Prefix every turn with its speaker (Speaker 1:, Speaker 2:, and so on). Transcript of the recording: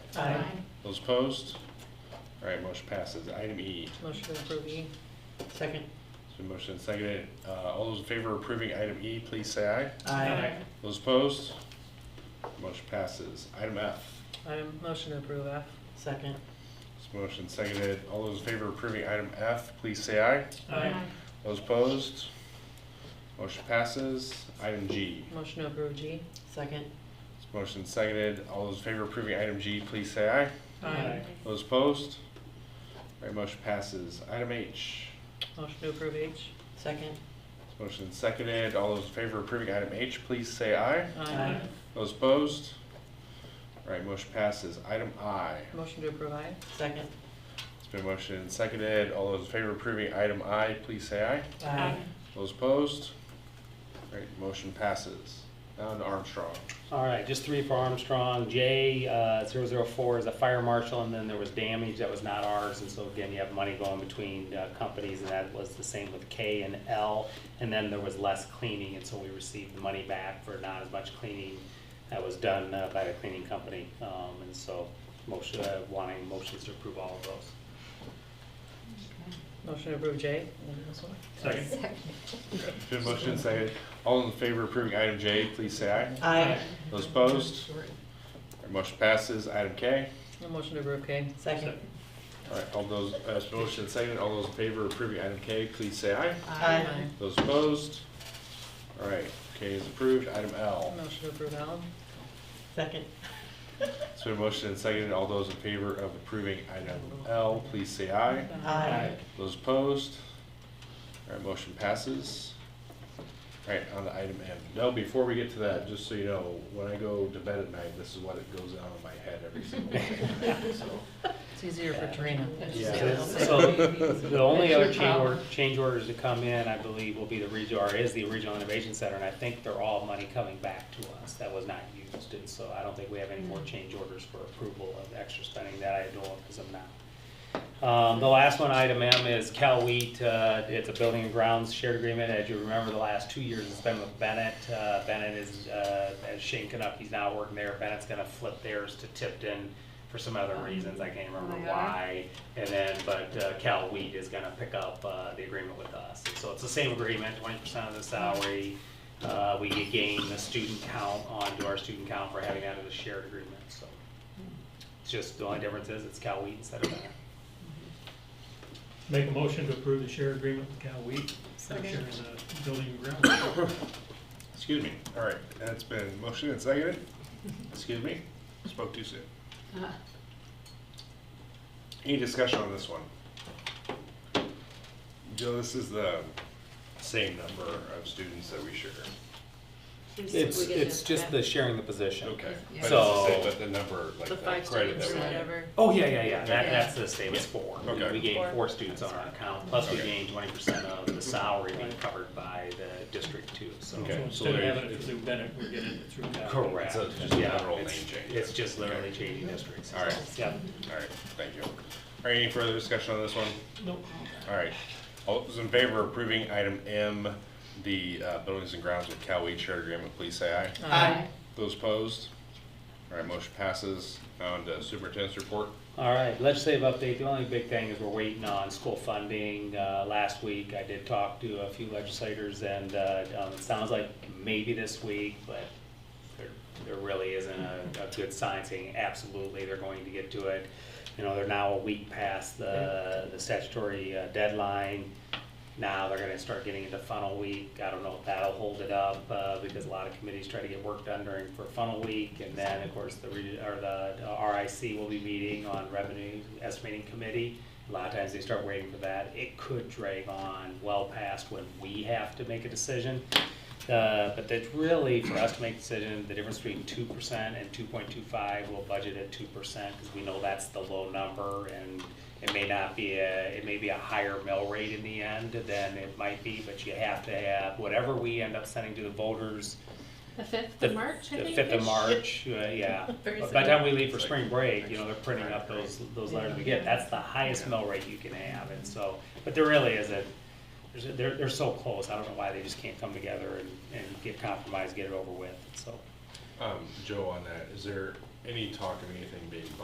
Speaker 1: Aye.
Speaker 2: Those opposed? All right, motion passes. Item E.
Speaker 1: Motion to approve E. Second.
Speaker 2: It's been motioned and seconded. Uh, All those in favor of approving item E, please say aye.
Speaker 1: Aye.
Speaker 2: Those opposed? Motion passes. Item F.
Speaker 1: Item, motion to approve F. Second.
Speaker 2: It's been motioned and seconded. All those in favor of approving item F, please say aye. Those opposed? Motion passes. Item G.
Speaker 1: Motion to approve G. Second.
Speaker 2: It's motioned and seconded. All those in favor of approving item G, please say aye. Those opposed? All right, motion passes. Item H.
Speaker 1: Motion to approve H. Second.
Speaker 2: It's motioned and seconded. All those in favor of approving item H, please say aye.
Speaker 1: Aye.
Speaker 2: Those opposed? All right, motion passes. Item I.
Speaker 1: Motion to approve I. Second.
Speaker 2: It's been motioned and seconded. All those in favor of approving item I, please say aye.
Speaker 1: Aye.
Speaker 2: Those opposed? All right, motion passes. Now to Armstrong.
Speaker 3: All right, just three for Armstrong. J, uh, 004 is a fire marshal, and then there was damage that was not ours. And so again, you have money going between uh, companies, and that was the same with K and L. And then there was less cleaning, and so we received the money back for not as much cleaning that was done uh, by the cleaning company. Um, And so motion, uh, wanting motions to approve all of those.
Speaker 1: Motion to approve J.
Speaker 3: Second.
Speaker 2: It's been motioned and seconded. All in favor of approving item J, please say aye.
Speaker 1: Aye.
Speaker 2: Those opposed? All right, motion passes. Item K.
Speaker 1: Motion to approve K. Second.
Speaker 2: All right, all those, uh, it's been motioned and seconded. All those in favor of approving item K, please say aye.
Speaker 1: Aye.
Speaker 2: Those opposed? All right, K is approved. Item L.
Speaker 1: Motion to approve L. Second.
Speaker 2: It's been motioned and seconded. All those in favor of approving item L, please say aye.
Speaker 1: Aye.
Speaker 2: Those opposed? All right, motion passes. All right, on to item M. No, before we get to that, just so you know, when I go to bed at night, this is what it goes on in my head every single day, so.
Speaker 1: It's easier for Trina.
Speaker 2: Yeah.
Speaker 3: So the only other change order, change orders to come in, I believe, will be the regional, or is the Regional Innovation Center, and I think they're all money coming back to us that was not used, and so I don't think we have any more change orders for approval of extra spending that I know of, because I'm not. Um, the last one, item M, is Cal Wheat, uh, it's a building and grounds shared agreement, as you remember, the last two years it's been with Bennett, uh, Bennett is, uh, as Shane Canucky's now working there, Bennett's gonna flip theirs to Tipton for some other reasons, I can't remember
Speaker 4: Oh, they are?
Speaker 3: why. I, and then, but uh, Cal Wheat is gonna pick up uh, the agreement with us. So it's the same agreement, twenty percent of the salary. Uh, We gain the student count onto our student count for having that as a shared agreement, so. It's just, the only difference is it's Cal Wheat instead of Banner.
Speaker 5: Make a motion to approve the share agreement with Cal Week.
Speaker 4: Second.
Speaker 5: Share is a building and ground.
Speaker 2: Excuse me. All right, that's been motioned and seconded. Excuse me, spoke too soon.
Speaker 1: Uh-huh.
Speaker 2: Any discussion on this one? Joe, this is the same number of students that we share.
Speaker 3: It's, it's just the sharing the position.
Speaker 2: Okay.
Speaker 4: Yeah.
Speaker 2: But it's the same,
Speaker 3: So-
Speaker 2: but the number, like
Speaker 1: The
Speaker 2: the
Speaker 1: five
Speaker 2: credit
Speaker 1: students
Speaker 2: that
Speaker 1: or
Speaker 2: we have.
Speaker 1: whatever.
Speaker 3: Oh, yeah, yeah, yeah, that,
Speaker 2: Yeah.
Speaker 3: that's the same, it's four. We-
Speaker 2: Okay.
Speaker 3: We gained
Speaker 4: Four.
Speaker 3: four students on our account, plus we
Speaker 2: Okay.
Speaker 3: gained twenty percent of the salary being covered by the district too, so.
Speaker 2: Okay.
Speaker 5: So
Speaker 2: so
Speaker 5: instead of
Speaker 2: there-
Speaker 5: having it through Bennett, we're getting it through Cal.
Speaker 3: Correct.
Speaker 2: So it's just a
Speaker 3: Yeah,
Speaker 2: general
Speaker 3: it's-
Speaker 2: name change.
Speaker 3: It's just literally
Speaker 2: Okay.
Speaker 3: changing districts.
Speaker 2: All right.
Speaker 3: Yep.
Speaker 2: All right, thank you. All right, any further discussion on this one?
Speaker 5: Nope.
Speaker 2: All right, all those in favor of approving item M, the uh, buildings and grounds with Cal Weed shared agreement, please say aye.
Speaker 1: Aye.
Speaker 2: Those opposed? All right, motion passes. Now on to superintendent's report.
Speaker 3: All right, legislative update, the only big thing is we're waiting on school funding. Uh, Last week, I did talk to a few legislators, and uh, um, it sounds like maybe this week, but there, there really isn't a, a good sign saying absolutely they're going to get to it. You know, they're now a week past the, the statutory uh, deadline. Now they're gonna start getting into funnel week. I don't know if that'll hold it up, uh, because a lot of committees try to get work done during, for funnel week. And then, of course, the, re- or the RIC will be meeting on revenue estimating committee. A lot of times they start waiting for that. It could drag on well past when we have to make a decision. Uh, but that's really, for us to make a decision, the difference between two percent and two point two five, we'll budget at two percent, because we know that's the low number, and it may not be a, it may be a higher mill rate in the end than it might be, but you have to have, whatever we end up sending to the voters,
Speaker 4: The fifth
Speaker 3: the-
Speaker 4: of March, I
Speaker 3: the
Speaker 4: think.
Speaker 3: fifth of
Speaker 4: is-
Speaker 3: March, uh, yeah.
Speaker 4: Very
Speaker 3: But By the time we leave for
Speaker 2: Like,
Speaker 3: spring break, you
Speaker 2: next
Speaker 3: know, they're printing up
Speaker 2: Friday.
Speaker 3: those, those letters we get, that's the highest mill rate you can have, and so, but there really isn't, there's, a- they're, they're so close, I don't know why they just can't come together and, and get compromised, get it over with, so.
Speaker 2: Um, Joe, on that, is there any talk of anything being